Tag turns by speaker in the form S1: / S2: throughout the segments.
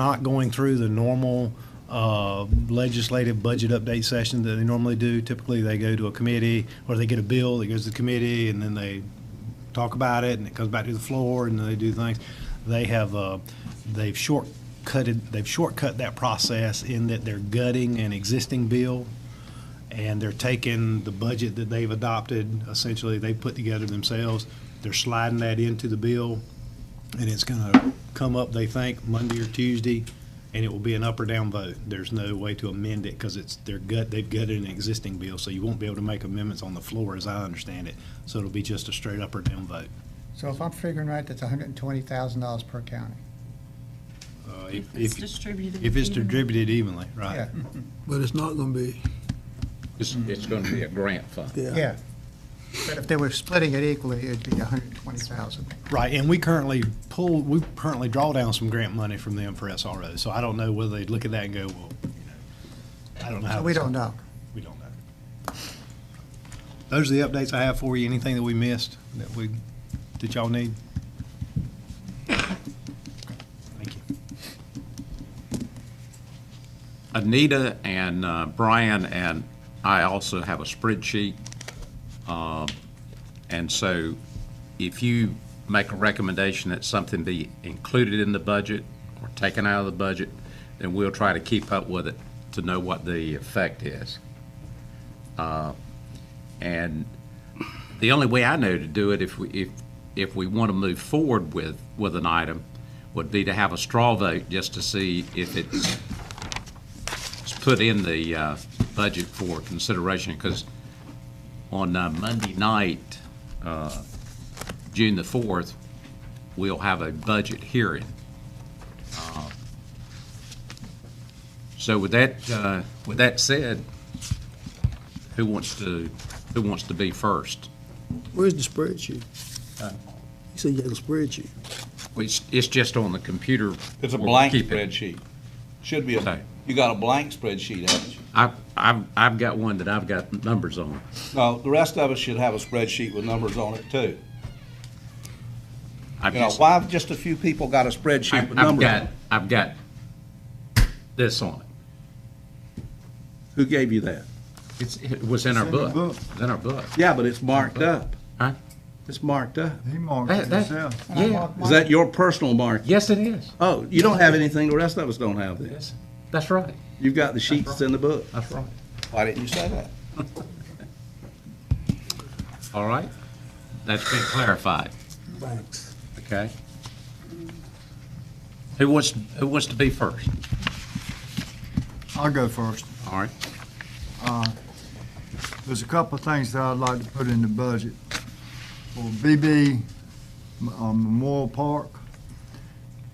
S1: not going through the normal uh, legislative budget update session that they normally do. Typically, they go to a committee, or they get a bill that goes to the committee, and then they talk about it, and it comes back to the floor, and then they do things. They have, uh, they've shortcutted, they've shortcut that process in that they're gutting an existing bill, and they're taking the budget that they've adopted, essentially, they put together themselves, they're sliding that into the bill, and it's gonna come up, they think, Monday or Tuesday, and it will be an up or down vote. There's no way to amend it, because it's, their gut, they've gutted an existing bill, so you won't be able to make amendments on the floor, as I understand it. So it'll be just a straight up or down vote.
S2: So if I'm figuring right, that's hundred and twenty thousand dollars per county.
S1: Uh,
S3: If it's
S1: if-
S3: distributed.
S1: If it's
S3: evenly.
S1: distributed evenly, right.
S2: Yeah,
S4: But it's not gonna be,
S5: It's, it's going to be a grant fund.
S4: yeah.
S2: yeah. But if they were splitting it equally, it'd be hundred and twenty thousand.
S1: Right, and we currently pull, we currently draw down some grant money from them for SRO, so I don't know whether they'd look at that and go, well, you know, I don't know. how
S2: So we
S1: this-
S2: don't know.
S1: We don't know. Those are the updates I have for you. Anything that we missed that we, that y'all need? Thank you.
S5: Anita and uh, Brian and I also have a spreadsheet. Um, And so if you make a recommendation that something be included in the budget or taken out of the budget, then we'll try to keep up with it to know what the effect is. Uh, And the only way I know to do it, if we, if, if we want to move forward with, with an item, would be to have a straw vote just to see if it's it's put in the uh, budget for consideration, because on uh, Monday night, uh, June the 4th, we'll have a budget hearing. Uh, So with that, uh, with that said, who wants to, who wants to be first?
S4: Where's the spreadsheet? You said you had a spreadsheet.
S5: It's, it's just on the computer.
S6: It's a
S5: where we
S6: blank
S5: keep it.
S6: spreadsheet. Should be,
S5: Okay.
S6: a. you got a blank spreadsheet, haven't you?
S5: I've, I've, I've got one that I've got numbers on.
S6: No, the rest of us should have a spreadsheet with numbers on it too.
S5: I've
S6: You know,
S5: just-
S6: why have just a few people got a spreadsheet
S5: I've
S6: with
S5: I've
S6: numbers? on
S5: got,
S6: it?
S5: I've got this on it.
S6: Who gave you that?
S5: It's, it was in our
S7: It's in the
S5: book.
S7: book.
S5: It's in our book.
S6: Yeah, but it's marked up.
S5: Huh?
S6: It's marked up.
S7: He marked
S5: That-
S7: it
S5: that-
S7: himself.
S5: yeah.
S6: Is that your personal mark?
S5: Yes, it is.
S6: Oh, you don't have anything, the rest of us don't have this.
S5: Yes. That's right.
S6: You've got the sheets that's in the book.
S5: That's right.
S6: Why didn't you say that?
S5: All right. That's been clarified.
S4: Thanks.
S5: Okay. Who wants, who wants to be first?
S7: I'll go first.
S5: All right.
S7: There's a couple of things that I'd like to put in the budget. For BB uh, Memorial Park,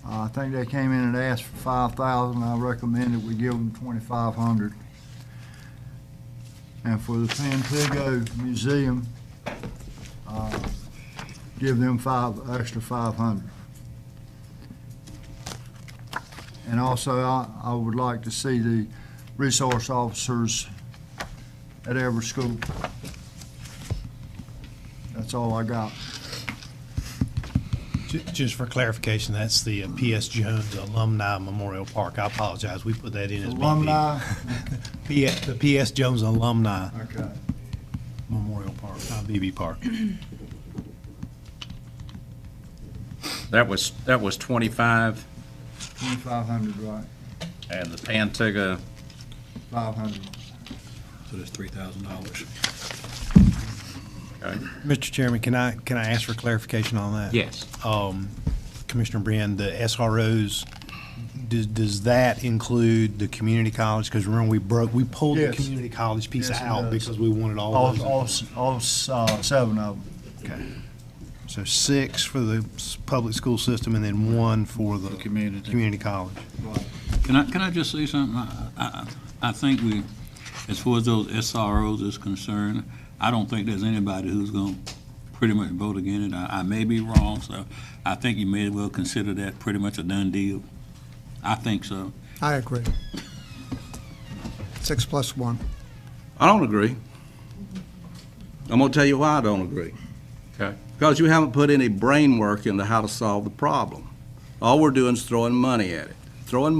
S7: I think they came in and asked for five thousand. I recommend that we give them twenty-five hundred. And for the Pantego Museum, uh, give them five, extra five hundred. And also, I, I would like to see the resource officers at every school. That's all I got.
S1: Ju- Just for clarification, that's the uh, PS Jones Alumni Memorial Park. I apologize, we put that in as BB.
S7: Alumni,
S1: P- The PS Jones Alumni
S7: okay.
S1: Memorial Park, not BB Park.
S5: That was, that was 25
S7: Twenty-five hundred, right,
S5: and the Pantigga,
S7: five hundred.
S4: So that's three thousand dollars.
S1: Mr. Chairman, can I, can I ask for clarification on that?
S5: yes.
S1: Um, Commissioner Brand, the SROs, does, does that include the community college? Because remember, we broke, we pulled the
S7: Yes.
S1: community college piece
S7: Yes, it
S1: out
S7: does.
S1: because we wanted all
S7: All, all,
S1: those.
S7: s- all, s- uh, seven of them.
S1: Okay. So six for the s- public school system and then one for the.
S8: The community.
S1: Community college.
S9: Can I, can I just say something? I, I, I think we, as far as those SROs is concerned, I don't think there's anybody who's gonna pretty much vote against it. I, I may be wrong, so I think you may as well consider that pretty much a done deal. I think so.
S2: I agree. Six plus one.
S6: I don't agree. I'm gonna tell you why I don't agree.
S5: Okay.
S6: Because you haven't put any brain work into how to solve the problem. All we're doing is throwing money at it, throwing